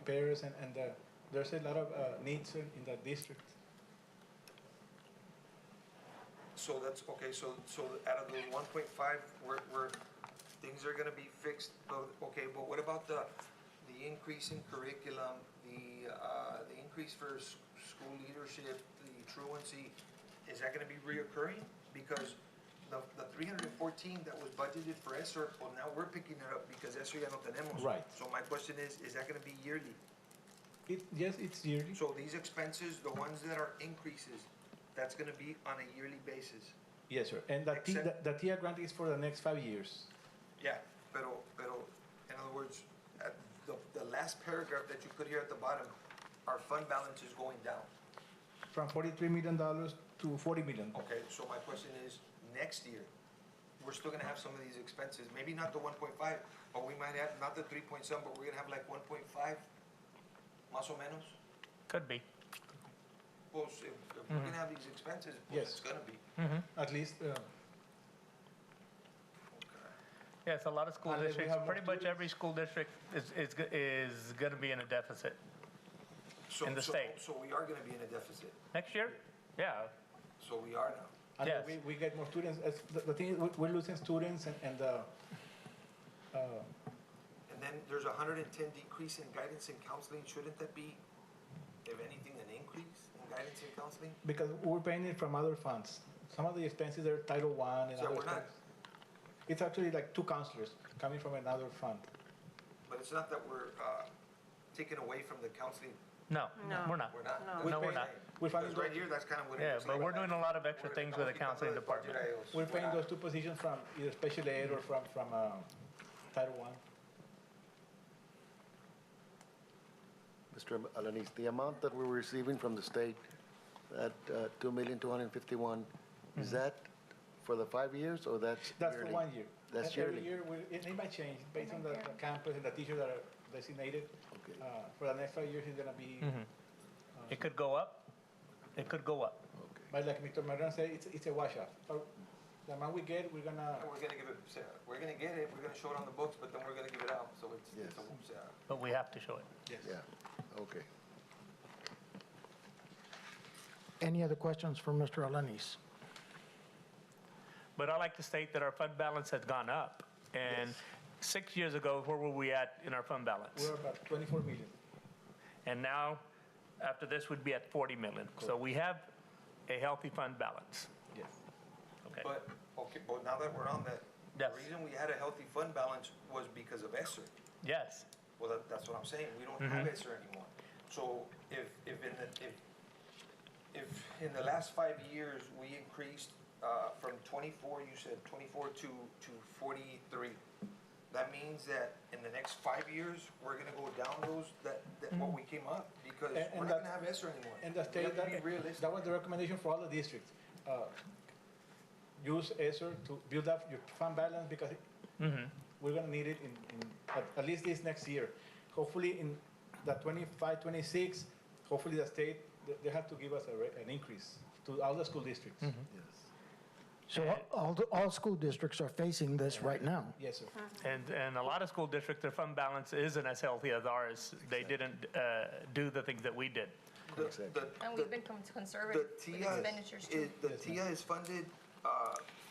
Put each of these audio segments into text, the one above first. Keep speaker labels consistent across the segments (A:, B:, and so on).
A: repairs and, and the, there's a lot of uh, needs in in the district.
B: So that's, okay, so, so out of the one point five, we're, we're, things are gonna be fixed, but, okay, but what about the, the increase in curriculum, the, uh, the increase for s- school leadership, the truancy, is that gonna be reoccurring? Because the, the three hundred and fourteen that was budgeted for ESER, well, now we're picking it up because ESER ya no tenemos.
A: Right.
B: So my question is, is that gonna be yearly?
A: It, yes, it's yearly,
B: So these expenses, the ones that are increases, that's gonna be on a yearly basis?
A: yes, sir. And the, T- the
B: Except-
A: the TIA grant is for the next five years.
B: Yeah, pero, pero, in other words, at the, the last paragraph that you put here at the bottom, our fund balance is going down.
A: From forty-three million dollars to forty million.
B: Okay, so my question is, next year, we're still gonna have some of these expenses, maybe not the one point five, but we might have, not the three point seven, but we're gonna have like one point five, más o menos?
C: Could be.
B: Well, if, if we're gonna have these expenses, well,
A: Yes.
B: it's gonna be.
A: At least, uh,
C: Yes, a lot of school
A: Unless we
C: districts,
A: have more
C: pretty much every school district is, is, go- is gonna be in a deficit.
B: So-
C: In the
B: so-
C: state.
B: So we are gonna be in a deficit,
C: Next year? Yeah,
B: so we are now.
A: and
C: Yes.
A: we, we get more students. As the, the thing is, we- we're losing students and, and, uh, uh,
B: And then there's a hundred and ten decrease in guidance and counseling, shouldn't that be, if anything, an increase in guidance and counseling?
A: because we're paying it from other funds. Some of the expenses are Title I and
B: So
A: other
B: we're not-
A: things. It's actually like two counselors coming from another fund.
B: But it's not that we're, uh, taking away from the counseling,
C: no,
D: No.
C: we're not.
B: we're not.
D: No.
B: That's
C: No,
B: what
C: we're
B: I'm
C: not.
B: saying.
A: We're funding
B: Because right
A: those-
B: here, that's kind of what it
C: Yeah,
B: looks
C: but
B: like.
C: we're doing a lot of extra
B: We're-
C: things with the
B: we're keeping
C: counseling
B: the
C: department.
B: budget
A: We're
B: items.
A: paying those two positions from either special ed or from, from, um, Title One.
E: Mr. Alanis, the amount that we're receiving from the state, that uh, 2,251, is that for the five years or that's
A: Mm-hmm. That's for
E: yearly?
A: one year.
E: That's
A: And Every
E: yearly.
A: year, we- it it might change based on the the campus and the teachers that are designated.
E: Okay.
A: Uh, For the next five years, it's gonna be,
C: It could go up, it could go up.
A: but like Mr. Maran said, it's, it's a washout. But The amount we get, we're gonna,
B: And we're gonna give it, so we're gonna get it, we're gonna show it on the books, but then we're gonna give it out, so it's, it's a,
E: Yes.
B: whoops, yeah.
C: But we have to show it.
A: yes.
E: Yeah, okay.
F: Any other questions for Mr. Alanis?
C: But I like to state that our fund balance has gone up. And six years ago, where were we at in our fund balance?
A: We're about twenty-four million.
C: And now, after this, we'd be at 40 million. So we have a healthy fund balance.
A: Yes.
C: Okay.
B: But, okay, but now that we're on that, the
C: Yes.
B: reason we had a healthy fund balance was because of ESER.
C: Yes,
B: Well, that, that's what I'm saying, we don't have
A: Mm-hmm.
B: ESER anymore. So if, if in the, if, if in the last five years, we increased, uh, from twenty-four, you said twenty-four to, to forty-three, that means that in the next five years, we're gonna go down those, that, that what we came up, because
A: Mm-hmm. And- and
B: we're not
A: that-
B: gonna have ESER anymore.
A: And the
B: We
A: state,
B: have to
A: that,
B: be realistic.
A: that was the recommendation for all the districts. Uh, Use ESER to build up your fund balance because
C: Mm-hmm.
A: we're gonna need it in, in, at, at least this next year. Hopefully in the 25, 26. hopefully the state, they, they have to give us a, ra- an increase to all the school districts.
F: So all, all school districts are facing this right now.
A: Yes, sir.
C: and, and a lot of school districts, their fund balance isn't as healthy as ours. They didn't uh, do the things that we did.
B: The-
E: Exactly.
B: the-
D: And
B: the-
D: we've been con-
B: The
D: conservative with
B: TIA
D: expenditures
B: is,
D: too.
B: the TIA is funded, uh,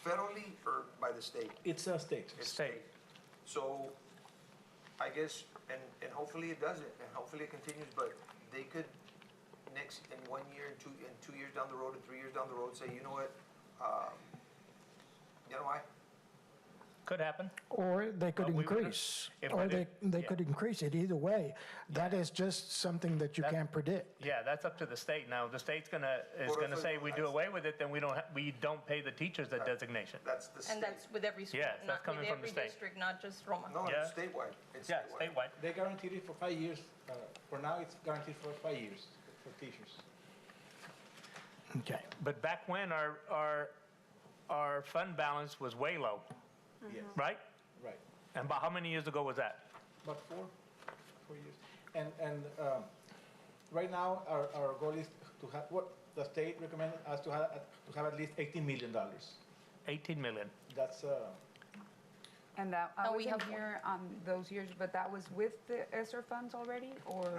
B: federally or by the state?
A: It's a state.
B: It's
C: State.
B: So, I guess, and, and hopefully it doesn't, and hopefully it continues, but they could next, in one year, and two, and two years down the road, and three years down the road, say, you know what? um, You know why?
C: Could happen.
F: Or they could
C: But we would-
F: increase,
C: if
F: or
C: we
F: they,
C: did-
F: they
C: yeah.
F: could increase it either way. That is just something that you
C: That-
F: can't predict.
C: Yeah, that's up to the state. Now, the state's gonna, is
B: Well,
C: gonna
B: that's
C: say
B: what-
C: we do away with it, then we don't, ha- we don't pay the teachers that designation.
B: That's the state.
D: And that's with every school,
C: Yes, that's
D: not
C: coming
D: with
C: from the
D: every
C: state.
D: district, not just Roma.
B: No, it's
C: Yeah.
B: statewide, it's
C: Yeah,
B: statewide.
C: statewide.
A: They guaranteed it for five years. Uh, for now, it's guaranteed for five years for teachers.
F: Okay.
C: But back when, our, our, our fund balance was way low,
A: Yes,
C: right?
A: right.
C: And about how many years ago was that?
A: About four, four years. And, and um, right now, our, our goal is to have, what the state recommended us to have, to have at least $18 million.
C: 18 million.
A: That's, uh,
G: And that, I
D: No, we
G: wasn't
D: have one.
G: here on those years, but that was with the ESER E funds already, or?